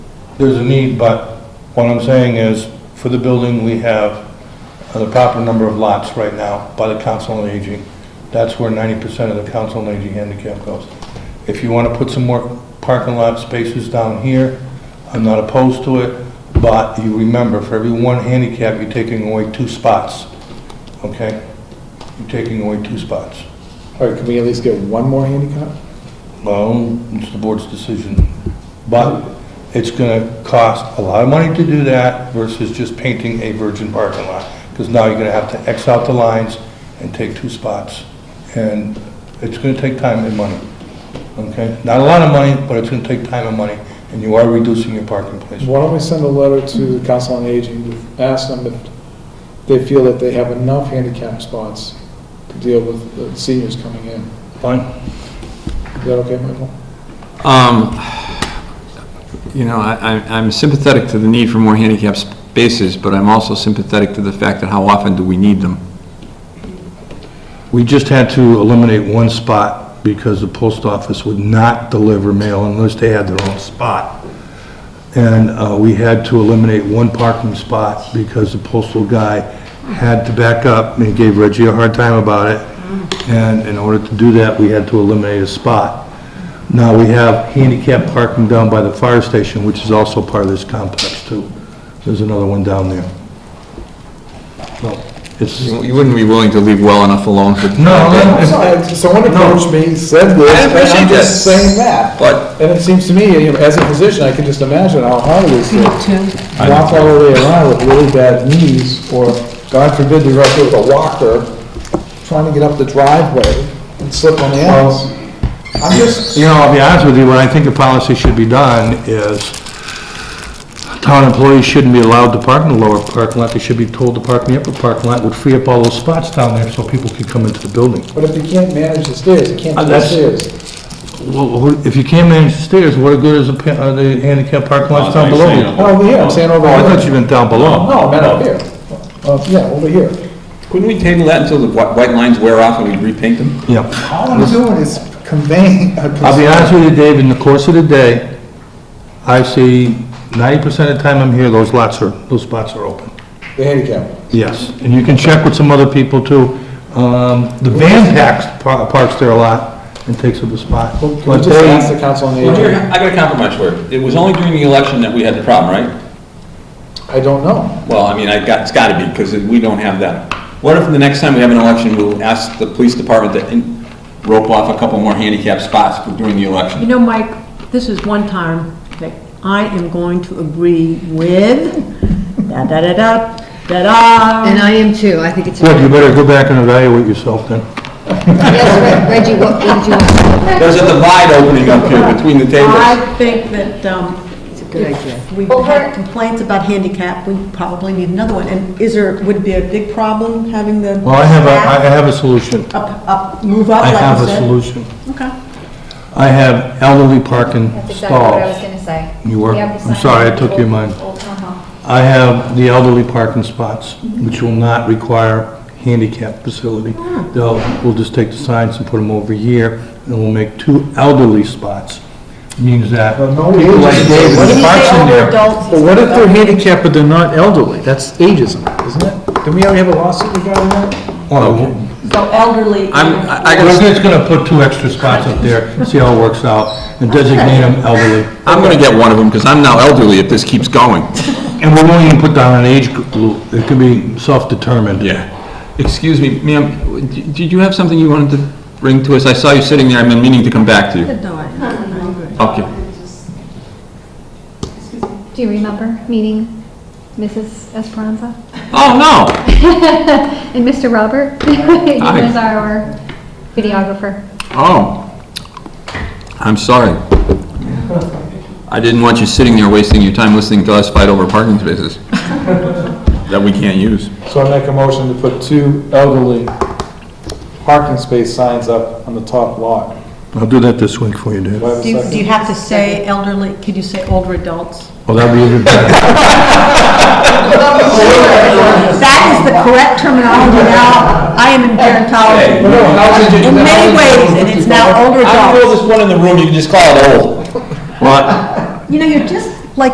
there's a need, but what I'm saying is, for the building, we have uh, the proper number of lots right now by the council on aging. That's where ninety percent of the council on aging handicap goes. If you want to put some more parking lot spaces down here, I'm not opposed to it, but you remember, for every one handicap, you're taking away two spots, okay? You're taking away two spots. All right, can we at least get one more handicap? Well, it's the board's decision. But it's going to cost a lot of money to do that versus just painting a virgin parking lot. Because now you're going to have to X out the lines and take two spots. And it's going to take time and money, okay? Not a lot of money, but it's going to take time and money, and you are reducing your parking place. Why don't we send a letter to the Council on Aging, to ask them if they feel that they have enough handicap spots to deal with the seniors coming in? Fine? Is that okay, Michael? Um, You know, I- I- I'm sympathetic to the need for more handicap spaces, but I'm also sympathetic to the fact that how often do we need them? We just had to eliminate one spot because the post office would not deliver mail unless they had their own spot. And uh, we had to eliminate one parking spot because the postal guy had to back up and gave Reggie a hard time about it. And in order to do that, we had to eliminate a spot. Now, we have handicap parking down by the fire station, which is also part of this complex, too. There's another one down there. Well, It's, You you wouldn't be willing to leave well enough alone for... no, I'm sorry, Someone approached me, said this, I and appreciate I'm just that. saying that. But- And it seems to me, you know, as a physician, I can just imagine how hard it is to walk all the way around with really bad knees, or God forbid, you're out there with a walker, trying to get up the driveway and slip on the ice. I'm just, You know, I'll be honest with you, what I think a policy should be done is town employees shouldn't be allowed to park in the lower parking lot. They should be told to park in the upper parking lot, would free up all those spots down there so people could come into the building. but if you can't manage the stairs, you can't do the That's- stairs. Well, who- if you can't manage the stairs, what good is the pa- uh, the handicap parking lots down below? Oh, Well, Over here, I'm saying over I thought here. you meant down below. No, I meant up here. Uh, yeah, over here. Couldn't we table that until the whi- white lines wear off and we repaint them? Yeah. All I'm doing is conveying a I'll be concern. honest with you, Dave, in the course of the day, I see ninety percent of the time I'm here, those lots are, those spots are open. The handicap. Yes, and you can check with some other people too. Um, The van packs, par- parks there a lot and takes up a spot. Well, Can we But just they- ask the council on the Well, Jerry, aging? I got a compromise for you. It was only during the election that we had the problem, right? I don't know. Well, I mean, I got, it's gotta be, because we don't have that. What if the next time we have an election, we'll ask the police department to in- rope off a couple more handicap spots for- during the You election? know, Mike, this is one time that I am going to agree with da-da-da-da, da-da. And I am too, I think it's. Good, you better go back and evaluate yourself then. Yes, Reg- Reggie, what did you want? There's a divide opening up here between the tables. I think that um, good idea. if we've had complaints about handicap, we probably need another one. And is there, would it be a big problem having the Well, I have a, I staff have a solution. up, up, move Oh, up, I like have you a said? solution. Okay. I have elderly parking That's exactly what I was stalls. gonna say. Oh, uh-huh. You were- We have the I'm sign sorry, I on took Old- your mind. Old Town Hall. I have the elderly parking spots, which will not require handicap facility. Hmm. They'll, we'll just take the signs and put them over here, and we'll make two elderly spots. Means that Well, no, people we- like Dave What with if the they parks in there. But what if they're handicapped but they're not elderly? That's ageism, isn't it? Didn't we already have a lawsuit regarding that? Well, So elderly. I'm, and- I- I We're gotta- just gonna put two extra spots up there, see how it works out, and designate them elderly. I'm going to get one of them, because I'm now elderly if this keeps going. And we won't even put down an age group, it can be self-determined. Excuse me, ma'am, w- d- did you have something you wanted to bring to us? I saw you sitting there, I've been meaning to come back to you. No, I- I'm good. Okay. Do you remember meeting Mrs. Esperanza? Oh, no! And Mr. Robert? He Hi. was our videographer. Oh. I'm sorry. I didn't want you sitting there wasting your time listening to us fight over parking spaces that we can't use. So I make a motion to put two elderly parking space signs up on the top lot. I'll do that this week for you, Dave. Do I have a Do you- second? do you have to say elderly, could you say older adults? Well, that'd be even better. That is the correct terminology now. I am in Well, gerontology. no, how's it- In many ways, and it's now older I know adults. there's one in the room, you can just call it old. Well, You know, you're just